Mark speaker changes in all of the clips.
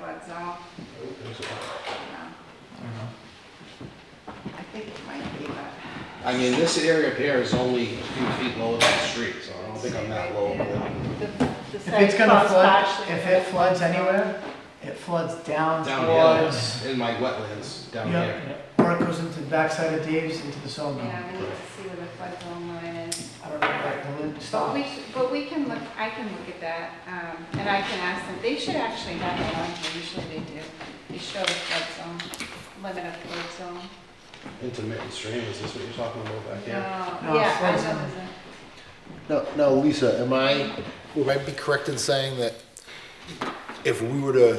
Speaker 1: that's all. No. I think it might be, but.
Speaker 2: I mean, this area up here is only a few feet lower than the street, so I don't think I'm that low.
Speaker 3: If it's gonna flood, if it floods anywhere, it floods down
Speaker 2: Down
Speaker 3: towards.
Speaker 2: here, in my wetlands, down
Speaker 3: Yep,
Speaker 2: here.
Speaker 3: yep. Or it goes into the backside of Dave's, into the sawmill.
Speaker 1: Yeah, we need to see where the flood zone line is.
Speaker 3: I don't know, like, the lid
Speaker 1: But we,
Speaker 3: stops.
Speaker 1: sh- but we can look, I can look at that, um, and I can ask them, they should actually have it on here, usually they do. They show the flood zone, limit of flood zone.
Speaker 2: Intermittent stream, is this what you're talking about back here?
Speaker 1: No,
Speaker 3: No,
Speaker 1: Yeah, I
Speaker 3: flood
Speaker 1: know,
Speaker 3: zone.
Speaker 1: there's a-
Speaker 4: Now, now, Lisa, am I, would I be correct in saying that if we were to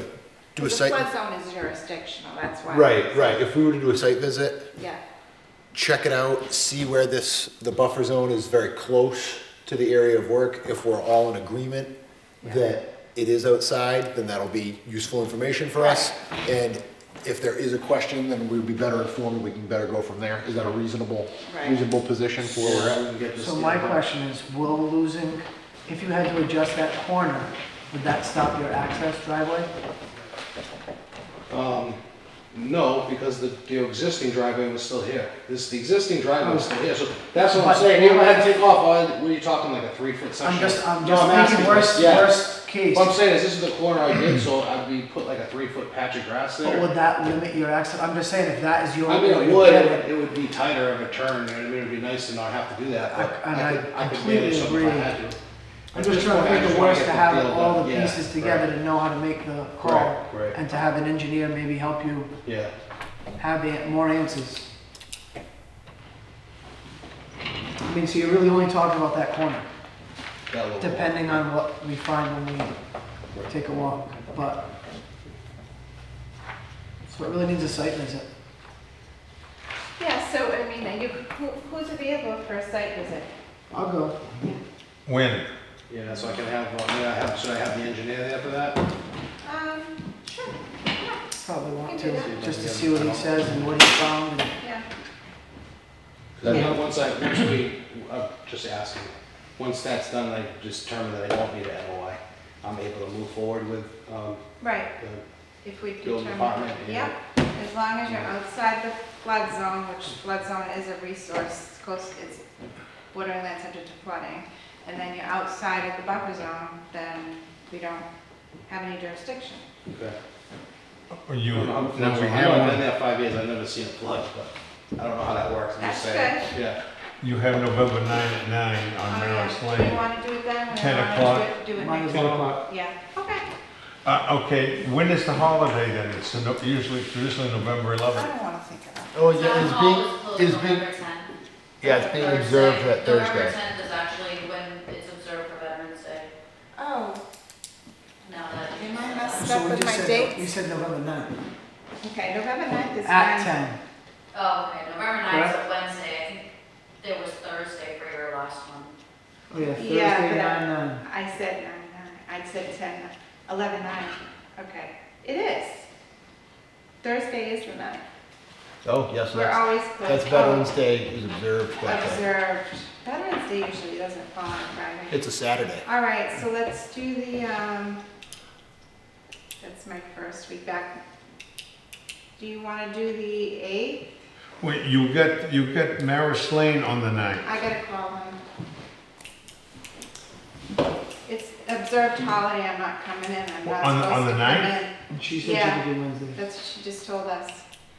Speaker 4: do
Speaker 1: the
Speaker 4: a site?
Speaker 1: flood zone is jurisdictional, that's why.
Speaker 4: Right, right, if we were to do a site visit,
Speaker 1: Yeah,
Speaker 4: check it out, see where this, the buffer zone is very close to the area of work. If we're all in agreement that it is outside, then that'll be useful information for us. And if there is a question, then we'd be better informed, we can better go from there. Is that a reasonable,
Speaker 1: Right.
Speaker 4: reasonable position for where we're at?
Speaker 3: So my question is, will losing, if you had to adjust that corner, would that stop your access driveway?
Speaker 2: Um, no, because the, the existing driveway was still here. This, the existing driveway was still here, so that's what I'm
Speaker 3: Oh. But-
Speaker 2: saying. You went ahead and take off, all- were you talking like a three foot section?
Speaker 3: I'm just, I'm
Speaker 2: No,
Speaker 3: just
Speaker 2: asking
Speaker 3: thinking worst,
Speaker 2: this, yeah.
Speaker 3: worst case.
Speaker 2: What I'm saying is, this is the corner I did, so I'd be put like a three foot patch of grass
Speaker 3: But
Speaker 2: there.
Speaker 3: would that limit your access? I'm just saying, if that is your.
Speaker 2: I mean,
Speaker 3: way
Speaker 2: it
Speaker 3: to
Speaker 2: would,
Speaker 3: get
Speaker 2: it would be tighter of a turn, you know what I mean, it'd be nice to not have to do that,
Speaker 3: I-
Speaker 2: but
Speaker 3: and
Speaker 2: I
Speaker 3: I
Speaker 2: could, I could
Speaker 3: completely
Speaker 2: manage something if I
Speaker 3: agree.
Speaker 2: had to.
Speaker 3: I'm just trying to
Speaker 2: I
Speaker 3: think
Speaker 2: just
Speaker 3: the
Speaker 2: wanna
Speaker 3: worst
Speaker 2: get
Speaker 3: to have
Speaker 2: deal
Speaker 3: all
Speaker 2: done.
Speaker 3: the
Speaker 2: Yeah,
Speaker 3: pieces
Speaker 2: right,
Speaker 3: together to know how to make the call.
Speaker 2: Right, right.
Speaker 3: And to have an engineer maybe help you
Speaker 2: Yeah.
Speaker 3: have an- more answers. I mean, so you're really only talking about that corner,
Speaker 2: that little-
Speaker 3: depending on what we find when we
Speaker 2: Right.
Speaker 3: take a walk, but. So it really needs a site visit.
Speaker 1: yeah, so, I mean, are you, who, who's available for a site visit?
Speaker 3: I'll go.
Speaker 5: When?
Speaker 2: Yeah, so I can have, uh, may I have, should I have the engineer there for that?
Speaker 1: Um, sure,
Speaker 3: Probably want
Speaker 1: Can do
Speaker 3: to,
Speaker 1: that.
Speaker 3: just to see what he says and what he found. and-
Speaker 1: yeah.
Speaker 2: Cause I know once I, once we, I'm just asking, once that's done, I determine that I don't need an NOI, I'm able to move forward with, um,
Speaker 1: Right,
Speaker 2: the
Speaker 1: if we
Speaker 2: building
Speaker 1: determine,
Speaker 2: department. and-
Speaker 1: yeah, as long as you're outside the flood zone, which flood zone is a resource, it's close, it's borderland subject to flooding, and then you're outside of the buffer zone, then we don't have any jurisdiction.
Speaker 2: Okay.
Speaker 5: Or you,
Speaker 2: I'm- I'm- I'm-
Speaker 5: now we
Speaker 2: I've been
Speaker 5: have,
Speaker 2: there five years, I've never seen a flood, but I don't know how that works, I'm just
Speaker 1: That's
Speaker 2: saying. Yeah,
Speaker 5: you have November 9 at 9 on Merritt's
Speaker 1: Oh, yeah. Do you
Speaker 5: Lane.
Speaker 1: want to do it then? We
Speaker 5: 10
Speaker 1: wanna do
Speaker 5: o'clock.
Speaker 1: it- Do it
Speaker 3: Might
Speaker 1: next
Speaker 3: as
Speaker 1: week.
Speaker 3: well.
Speaker 1: Yeah, okay,
Speaker 5: Uh, okay, when is the holiday then? It's the no- usually, traditionally November
Speaker 1: I
Speaker 5: 11th.
Speaker 1: don't want to think about it.
Speaker 4: Oh,
Speaker 6: It's
Speaker 4: it's being- Yeah, it's being
Speaker 6: November
Speaker 4: observed
Speaker 6: 10th.
Speaker 4: that Thursday.
Speaker 6: November tenth is actually when it's observed for Veterans Day,
Speaker 1: Oh,
Speaker 6: now that. you
Speaker 1: Am I
Speaker 6: said
Speaker 1: messed
Speaker 6: that.
Speaker 1: Stuck
Speaker 3: So we
Speaker 1: with
Speaker 3: just
Speaker 1: my
Speaker 3: said-
Speaker 1: dates?
Speaker 3: We said November 9th,
Speaker 1: okay, November 9th is
Speaker 3: at
Speaker 1: fine.
Speaker 3: 10.
Speaker 6: Oh, okay, November ninth is a Wednesday, I think there was Thursday for your last one.
Speaker 3: Oh, yeah, Thursday,
Speaker 1: Yeah, but I-
Speaker 3: 9
Speaker 1: I said nine, nine, I said ten, eleven, nine, okay. It is. Thursday is the ninth.
Speaker 4: Oh, yes,
Speaker 1: We're
Speaker 4: that's,
Speaker 1: always closed. Oh,
Speaker 4: that's Veterans Day is observed that day.
Speaker 1: Observed. Veterans Day usually doesn't fall on Friday.
Speaker 4: It's a Saturday.
Speaker 1: All right, so let's do the, um, that's my first week back. Do you want to do the eighth?
Speaker 5: Wait, you got, you got Merritt's Lane on the 9th.
Speaker 1: I gotta call him. It's observed holiday, I'm not coming in, I'm not
Speaker 5: On the- on
Speaker 1: supposed
Speaker 5: the
Speaker 1: to come
Speaker 5: ninth?
Speaker 1: in.
Speaker 3: And she said
Speaker 1: Yeah.
Speaker 3: she could do Wednesday.
Speaker 1: That's what she just told us,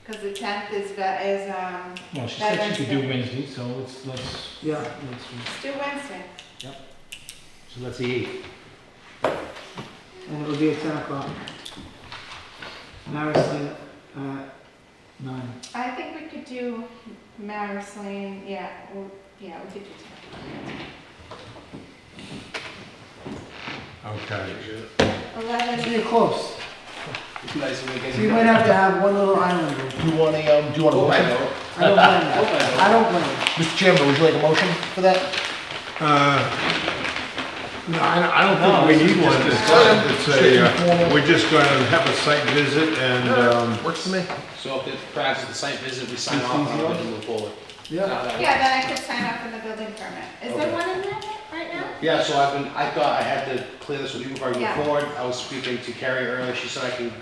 Speaker 1: because the tenth is, the- is, um,
Speaker 7: Well, she said she could do
Speaker 1: Veterans
Speaker 7: Wednesday, so let's, let's,
Speaker 3: Yeah, that's true.
Speaker 1: it's due Wednesday.
Speaker 7: so let's see.
Speaker 3: And it would be at 10 o'clock. And I was saying, uh, 9.
Speaker 1: I think we could do Maris Lane, yeah, well, yeah, we could do ten.
Speaker 5: Okay.
Speaker 3: So
Speaker 1: Eleven,
Speaker 3: you're close.
Speaker 2: nice when we get.
Speaker 3: So you might have to have one little island. room.
Speaker 4: Do you want a, um, do you want a
Speaker 2: Hope I
Speaker 4: motion?
Speaker 2: know.
Speaker 3: I don't blame
Speaker 2: Hope
Speaker 3: you.
Speaker 2: I know.
Speaker 3: I don't blame you.
Speaker 4: Mr. Chairman, would you like a motion for that?
Speaker 5: Uh, No, I I don't think we need one. It's a, uh, we're just going to have a site visit and, um,
Speaker 4: Works for me.
Speaker 2: So if it, perhaps at the site visit, we sign off on it and move forward.
Speaker 3: Yeah.
Speaker 1: yeah, then I could sign up for the building permit. Is there
Speaker 2: Okay.
Speaker 1: one in there right now?
Speaker 2: Yeah, so I've been, I thought I had to clear this with you before I
Speaker 1: Yeah.
Speaker 2: move forward. I was speaking to Carrie earlier, she said I can